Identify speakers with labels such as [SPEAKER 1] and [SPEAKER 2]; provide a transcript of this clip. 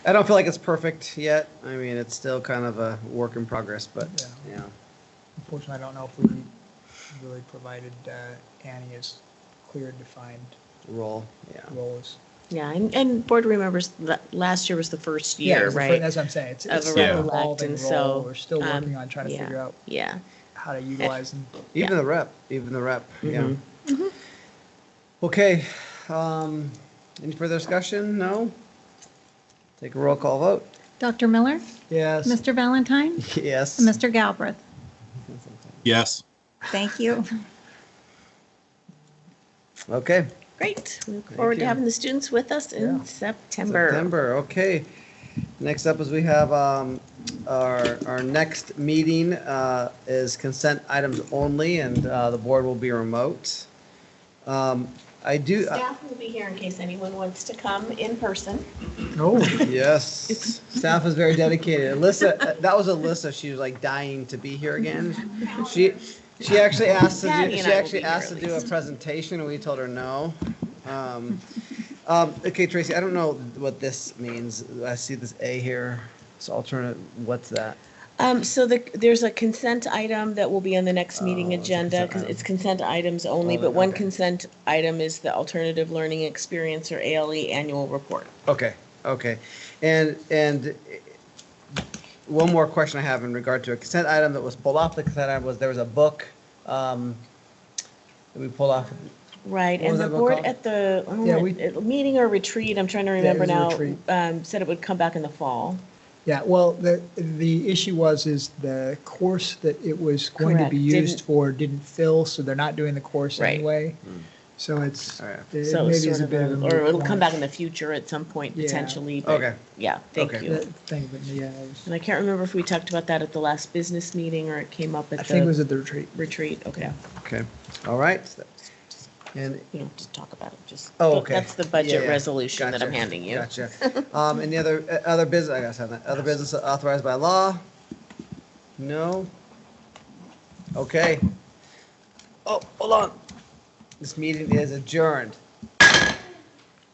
[SPEAKER 1] I don't feel like it's perfect yet. I mean, it's still kind of a work in progress, but yeah.
[SPEAKER 2] Unfortunately, I don't know if we really provided uh, Annie as clear and defined
[SPEAKER 1] roll. Yeah.
[SPEAKER 2] role as.
[SPEAKER 3] Yeah, and, and board remembers that last year was the first
[SPEAKER 2] Yeah,
[SPEAKER 3] year,
[SPEAKER 2] it's the fir-
[SPEAKER 3] right?
[SPEAKER 2] That's what I'm saying. It's,
[SPEAKER 3] Of
[SPEAKER 2] it's
[SPEAKER 3] a
[SPEAKER 2] still an
[SPEAKER 3] recollect,
[SPEAKER 2] evolving
[SPEAKER 3] and
[SPEAKER 2] role.
[SPEAKER 3] so,
[SPEAKER 2] We're still
[SPEAKER 3] um,
[SPEAKER 2] working on trying to
[SPEAKER 3] yeah. Eh.
[SPEAKER 2] figure out
[SPEAKER 3] Yeah.
[SPEAKER 2] how to utilize and
[SPEAKER 1] Even
[SPEAKER 3] Yeah.
[SPEAKER 1] the rep, even the representative Yeah.
[SPEAKER 3] Mhm.
[SPEAKER 1] Okay. Um, any further discussion? No. Take a roll call vote.
[SPEAKER 4] Dr. Miller,
[SPEAKER 1] Yes.
[SPEAKER 4] Mr. Valentine,
[SPEAKER 1] Yes.
[SPEAKER 4] and Mr. Galbraith.
[SPEAKER 5] Yes.
[SPEAKER 4] Thank you.
[SPEAKER 1] Okay.
[SPEAKER 3] Great. We look forward
[SPEAKER 1] you.
[SPEAKER 3] to having the students with us
[SPEAKER 2] Yeah.
[SPEAKER 3] in September.
[SPEAKER 1] September. Okay. Next up is we have um, our our next meeting uh, is consent items only, and uh, the board will be remote. Um, I do.
[SPEAKER 3] Staff will be here in case anyone wants to come in person.
[SPEAKER 1] Yes, staff is very dedicated. Alyssa, uh, that was Alyssa. She was like dying to be here again. She, she actually asked to do,
[SPEAKER 3] Patty
[SPEAKER 1] she
[SPEAKER 3] and I will
[SPEAKER 1] actually
[SPEAKER 3] be here
[SPEAKER 1] asked to
[SPEAKER 3] at
[SPEAKER 1] do a
[SPEAKER 3] least.
[SPEAKER 1] presentation and we told her no. Um, um, okay, Tracy, I don't know what this means. I see this A here. It's alternate. What's that?
[SPEAKER 3] Um, so the, there's a consent item that will be on the next meeting
[SPEAKER 1] Oh, it's a
[SPEAKER 3] agenda,
[SPEAKER 1] consent
[SPEAKER 3] because
[SPEAKER 1] item.
[SPEAKER 3] it's consent items only,
[SPEAKER 2] Oh,
[SPEAKER 1] Only,
[SPEAKER 3] but one
[SPEAKER 1] okay.
[SPEAKER 3] consent item is the Alternative Learning Experience or ALE Annual Report.
[SPEAKER 1] Okay, okay. And, and one more question I have in regard to a consent item that was pulled off the consent item was there was a book, um, that we pulled off.
[SPEAKER 3] Right,
[SPEAKER 1] What was
[SPEAKER 3] and the
[SPEAKER 1] that book
[SPEAKER 3] board
[SPEAKER 1] called?
[SPEAKER 3] at the, oh,
[SPEAKER 2] Yeah, we-
[SPEAKER 3] at- meeting or retreat, I'm trying to
[SPEAKER 2] it
[SPEAKER 3] remember
[SPEAKER 2] was a
[SPEAKER 3] now,
[SPEAKER 2] retreat.
[SPEAKER 3] um, said it would come back in the fall.
[SPEAKER 2] Yeah, well, the, the issue was, is the course that it was going to be
[SPEAKER 3] Correct, didn't-
[SPEAKER 2] used for didn't fill, so they're not doing the course
[SPEAKER 3] Right.
[SPEAKER 2] anyway. So it's,
[SPEAKER 1] All right.
[SPEAKER 2] it maybe
[SPEAKER 3] So it's
[SPEAKER 2] is
[SPEAKER 3] sort
[SPEAKER 2] a
[SPEAKER 3] of,
[SPEAKER 2] bit of
[SPEAKER 3] a-
[SPEAKER 2] a.
[SPEAKER 3] or
[SPEAKER 2] moot
[SPEAKER 3] it'll come
[SPEAKER 2] point.
[SPEAKER 3] back in the future at some point
[SPEAKER 2] Yeah.
[SPEAKER 3] potentially,
[SPEAKER 1] Okay.
[SPEAKER 3] but, yeah, thank
[SPEAKER 1] Okay.
[SPEAKER 3] you.
[SPEAKER 2] That thing, but yeah, it was-
[SPEAKER 3] And I can't remember if we talked about that at the last business meeting or it came up
[SPEAKER 2] I
[SPEAKER 3] at
[SPEAKER 2] think it was
[SPEAKER 3] the
[SPEAKER 2] at the retreat.
[SPEAKER 3] retreat, okay.
[SPEAKER 1] Okay, all right. And,
[SPEAKER 3] You don't have to talk about it, just.
[SPEAKER 1] Oh, okay.
[SPEAKER 3] That's the
[SPEAKER 1] Yeah,
[SPEAKER 3] budget
[SPEAKER 1] yeah.
[SPEAKER 3] resolution that I'm
[SPEAKER 1] Gotcha.
[SPEAKER 3] handing you.
[SPEAKER 1] gotcha. Um, any other, uh, other business, I guess, I have that. other business authorized by law? No? Okay. Oh, hold on. This meeting is adjourned.